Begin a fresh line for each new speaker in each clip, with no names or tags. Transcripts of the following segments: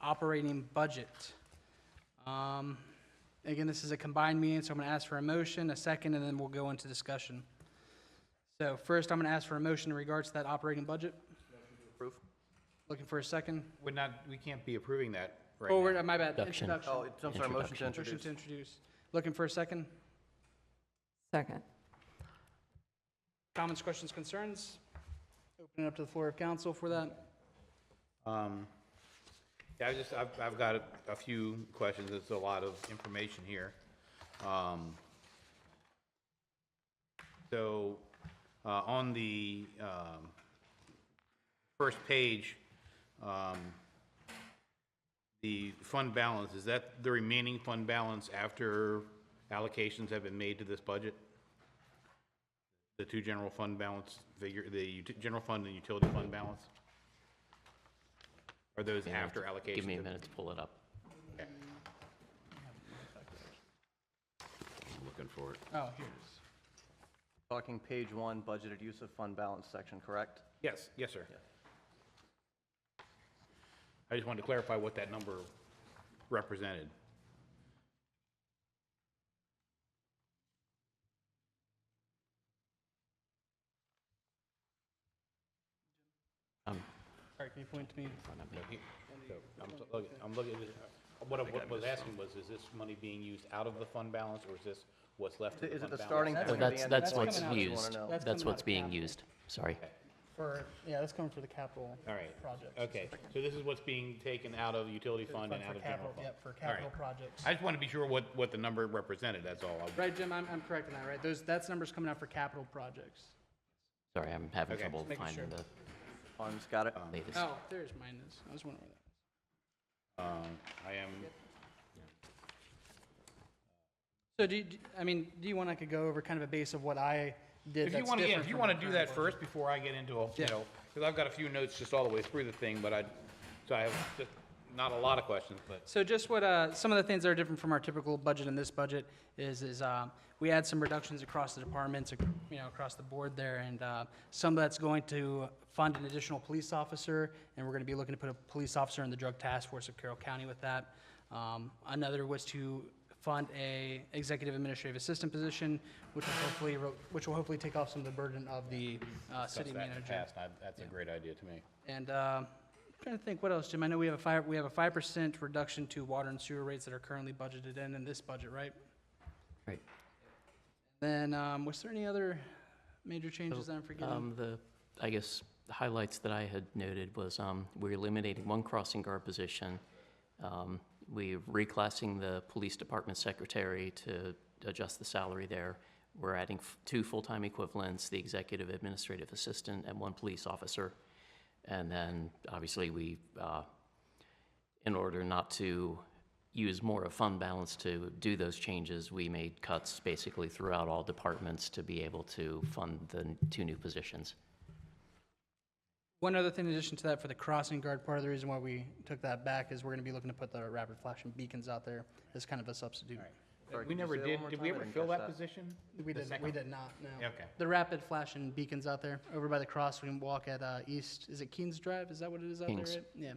operating budget. Um, Again, this is a combined meeting, so I'm going to ask for a motion, a second, and then we'll go into discussion. So first, I'm going to ask for a motion in regards to that operating budget.
Approve?
Looking for a second.
We're not, we can't be approving that right
Forward,
now.
uh, my bad,
Introduction.
introduction.
Oh, it's- I'm sorry, motion to
Motion
introduce.
to introduce. Looking for a second.
Second.
Comments, questions, concerns? Open it up to the floor of council for that.
Um, Yeah, I just, I've, I've got a- a few questions, there's a lot of information here. Um, So, uh, on the um, first page, um, the fund balance, is that the remaining fund balance after allocations have been made to this budget? The two general fund balance figure, the ut- general fund and utility fund balance? Are those after allocations?
Give me a
have-
minute to pull it up.
Looking for it.
Oh, here it is.
Talking page one, budgeted use of fund balance section, correct?
Yes, yes, sir. I just wanted to clarify what that number represented.
Um,
All right, can you point to me?
I'm so- look- I'm looking, at this- what I what I was asking was, is this money being used out of the fund balance, or is this what's left of the
Is it
fund
the
balance?
starting
That's
point
Well,
or the
that's,
end?
that's
coming
what's
out. That's
used.
coming out
That's
of
what's being
capital.
used. Sorry.
For, yeah, that's coming for the capital
All
project.
right, okay, so this is what's being taken out of utility fund and out of general fund? All right.
projects.
I just want to be sure what, what the number represented, that's all. I-
Right, Jim, I'm, I'm correct in that, right? Those, that's numbers coming out for capital projects.
Sorry, I'm having
Okay,
trouble
just
making
finding
sure.
the
Funds, got it?
latest.
Oh, there's minus. I was wondering where that.
Um, I am,
So do you, do- I mean, do you want, I could go over kind of a base of what I did
If you
that's
want to,
different
if you
from
want
the
to do
current budget?
that first before I get into, a you
Yeah.
know, because I've got a few notes just all the way through the thing, but I, so I have just not a lot of questions, but
So just what, uh, some of the things that are different from our typical budget in this budget is, is, uh, we had some reductions across the departments, you know, across the board there, and, uh, some that's going to fund an additional police officer, and we're gonna be looking to put a police officer in the drug task force of Carroll County with that. Um, another was to fund a executive administrative assistant position, which will hopefully, ro- which will hopefully take off some of the burden of the, uh, city
discussed that in the
manager.
past, and I- that's a great idea to me.
And um, I'm trying to think, what else, Jim? I know we have a five, we have a five percent reduction to water and sewer rates that are currently budgeted in, in this budget, right?
Right.
Then, um, was there any other major changes that I'm forgetting?
Um, the, I guess, the highlights that I had noted was, um, we're eliminating one crossing guard position. Um, we're reclassing the police department secretary to adjust the salary there. We're adding f- two full-time equivalents, the executive administrative assistant and one police officer. And then, obviously, we, uh, in order not to use more of fund balance to do those changes, we made cuts basically throughout all departments to be able to fund the n- two new positions.
One other thing in addition to that, for the crossing guard, part of the reason why we took that back is we're gonna be looking to put the rapid flashing beacons out there as kind of a substitute.
We
Sorry, could you
never
say that
did,
one more
did
time?
we
I
ever
didn't
fill
catch
that position?
We
The
did,
second
we
one?
did not, no.
Okay.
The rapid flashing beacons out there, over by the cross, we can walk at, uh, East, is it Keens Drive? Is that what it is out there,
Keens.
right? Yeah.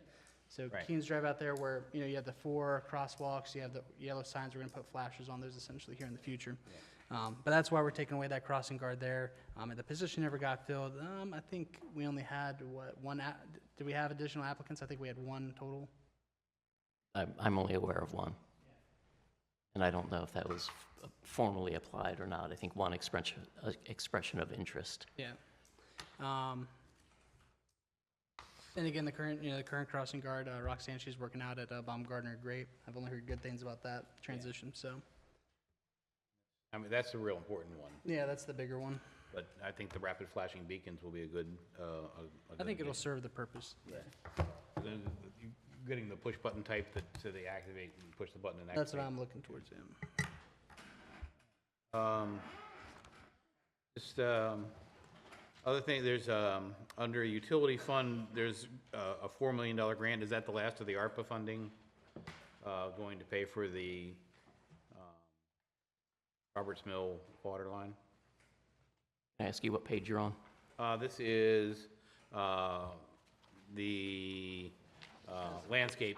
So
Right.
Keens Drive out there where, you know, you have the four crosswalks, you have the yellow signs, we're gonna put flashes on those essentially here in the future. Um, but that's why we're taking away that crossing guard there. Um, and the position never got filled. Um, I think we only had, what, one, a- did we have additional applicants? I think we had one total.
I'm, I'm only aware of one. And I don't know if that was f- formally applied or not. I think one expression, uh, expression of interest.
Yeah. Um, and again, the current, you know, the current crossing guard, uh, Roxanne, she's working out at uh, Baumgartner Great. I've only heard good things about that transition. So,
I mean, that's a real important one,
yeah, that's the bigger one.
but I think the rapid flashing beacons will be a good, uh, a- a
I think
good
it'll serve the purpose. Yeah.
addition. The- Getting the push button type that, so they activate and push the button and activate.
That's what I'm looking towards. Yeah.
Um, Just, um, other thing, there's, um, under utility fund, there's uh, a $4 million grant. Is that the last of the ARPA funding uh, going to pay for the um, Roberts Mill water line?
Can I ask you what page you're on?
Uh, This is uh, the uh, landscape